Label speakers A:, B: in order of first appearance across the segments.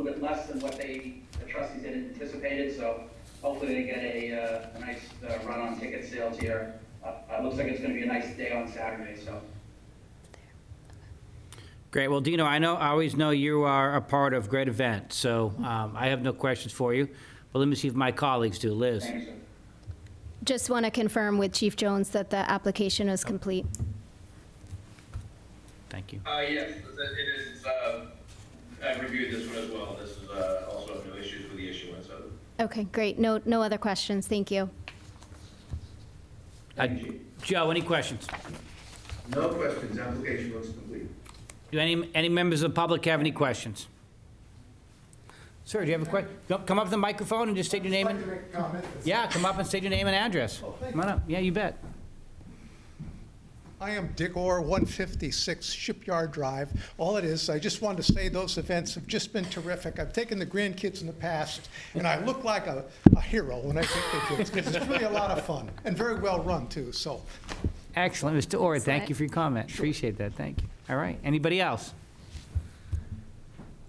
A: less than what they, the trustees had anticipated, so hopefully they get a, uh, a nice uh, run on ticket sales here. Uh, it looks like it's gonna be a nice day on Saturday, so.
B: Great. Well, Dino, I know, I always know you are a part of great events, so um, I have no questions for you. But let me see if my colleagues do. Liz?
A: Thanks. sir.
C: Just want to confirm with Chief Jones that the application is complete.
B: Thank you.
D: Uh, yes, it is, it's, uh, I've reviewed this one as well, this is, uh, also no issues with the issuance of it.
C: Okay, great. No, no other questions. Thank you.
B: Uh, Joe, any questions?
E: No questions, application looks complete.
B: Do any, any members of the public have any questions? Sir, do you have a question? Come up to the microphone and just state your name and, yeah, come up and state your name and address. Come on up. Yeah, you bet.
F: I am Dick Orr, 156 Shipyard Drive. All it is, I just wanted to say those events have just been terrific. I've taken the grandkids in the past, and I look like a, a hero when I take the kids, because it's really a lot of fun, and very well-run, too, so.
B: Excellent. Mr. Orr, thank
C: Excellent.
B: you for your comment. Appreciate that. Thank you. All right. Anybody else?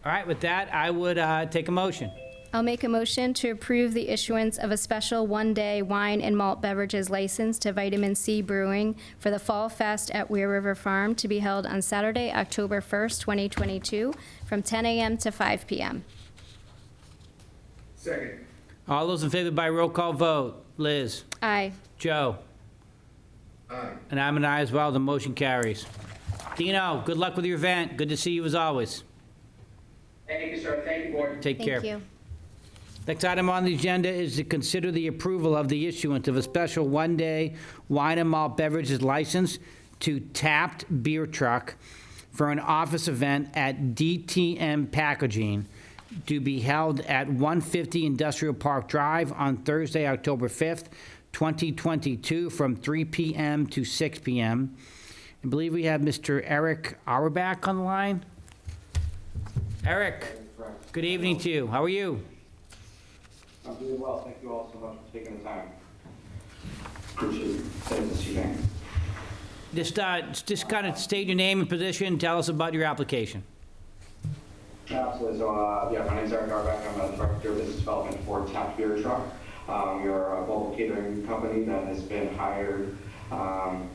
B: All right, with that, I would uh, take a motion.
C: I'll make a motion to approve the issuance of a special one-day wine and malt beverages license to Vitamin C Brewing for the Fall Fest at Weir River Farm to be held on Saturday, October 1st, 2022, from 10 a.m. to 5 p.m.
E: Second,
B: All those in favor by roll call vote. Liz?
C: Aye.
B: Joe?
E: aye.
B: And I'm an aye as well. The motion carries. Dino, good luck with your event. Good to see you as always.
A: Thank you, sir, thank you, board.
B: Take care.
C: Thank you.
B: Next item on the agenda is to consider the approval of the issuance of a special one-day wine and malt beverages license to Tapped Beer Truck for an office event at DTM Packaging to be held at 150 Industrial Park Drive on Thursday, October 5th, 2022, from 3 PM to 6 PM. I believe we have Mr. Eric Auerbach on the line. Eric, good evening to you. How are you?
G: I'm doing well, thank you all so much for taking the time. Appreciate it this evening.
B: Just, uh, just kind of state your name and position, tell us about your application.
G: Absolutely, so, uh, yeah, my name's Eric Arbeck, I'm a director of business development for Tap Beer Truck. Um, we are a mobile catering company that has been hired, um,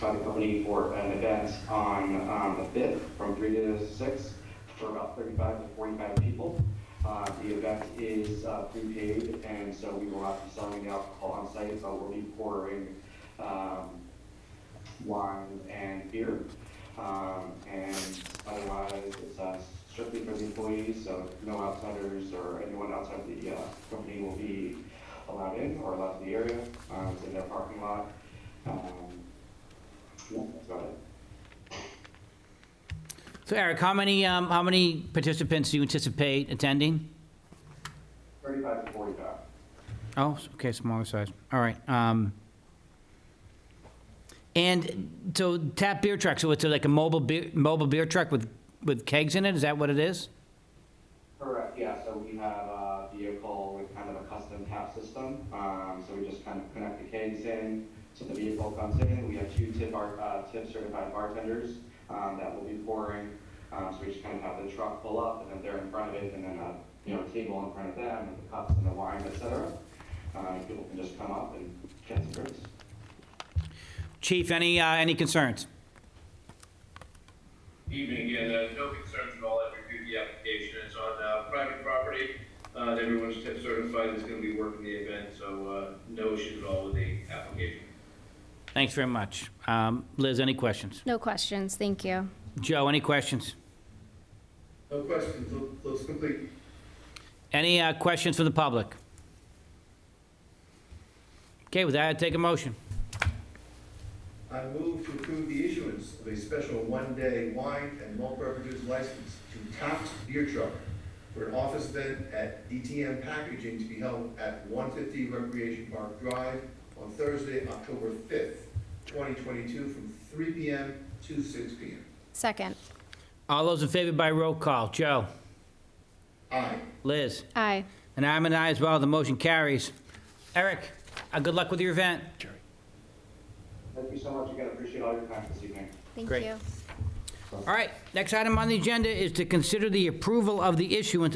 G: by the company for an event on, um, the fifth, from three to six, for about thirty-five to forty-five people. Uh, the event is, uh, prepaid, and so we will not be selling the alcohol on site, but we'll be pouring, um, wine and beer. Um, and otherwise, it's uh, strictly for the employees, so no outsiders or anyone outside the uh, company will be allowed in or allowed to the area. Um, it's in their parking lot. Um, yeah, that's about it.
B: So Eric, how many, um, how many participants do you anticipate attending?
G: 35 to 45.
B: Oh, okay, smaller size, all right. um, And so tap beer truck, so it's like a mobile beer, mobile beer truck with, with kegs in it, is that what it is?
G: Correct, yeah, so we have a vehicle with kind of a custom tap system, um, so we just kind of connect the kegs in, so the vehicle comes in, we have two tip bar, uh, tip certified bartenders, um, that will be pouring, um, so we just kind of have the truck pull up, and then they're in front of it, and then a, you know, table in front of them, and the cups and the wine, et cetera. Uh, people can just come up and get some drinks.
B: Chief, any, uh, any concerns?
D: Evening, again, uh, no concerns at all, I've reviewed the application, it's on, uh, private property, uh, everyone's tip certified, that's gonna be working the event, so, uh, no issues at all with the application.
B: Thanks very much. Um, Liz, any questions?
C: No questions. Thank you.
B: Joe, any questions?
E: No questions, Loo- looks complete.
B: Any uh, questions for the public? Okay, with that, I take a motion.
E: I move to approve the issuance of a special one-day wine and malt beverages license to Taft Beer Truck for an office event at DTM Packaging to be held at 150 Recreation Park Drive on Thursday, October 5th, 2022, from 3 PM to 6 PM.
C: Second.
B: All those in favor by roll call. Joe?
E: Aye.
B: Liz?
C: Aye.
B: And I'm an aye as well. The motion carries. Eric, uh, good luck with your event.
G: Thank you so much, again, appreciate all your time this evening.
C: Thank
B: Great.
C: you.
B: All right, next item on the agenda is to consider the approval of the issuance of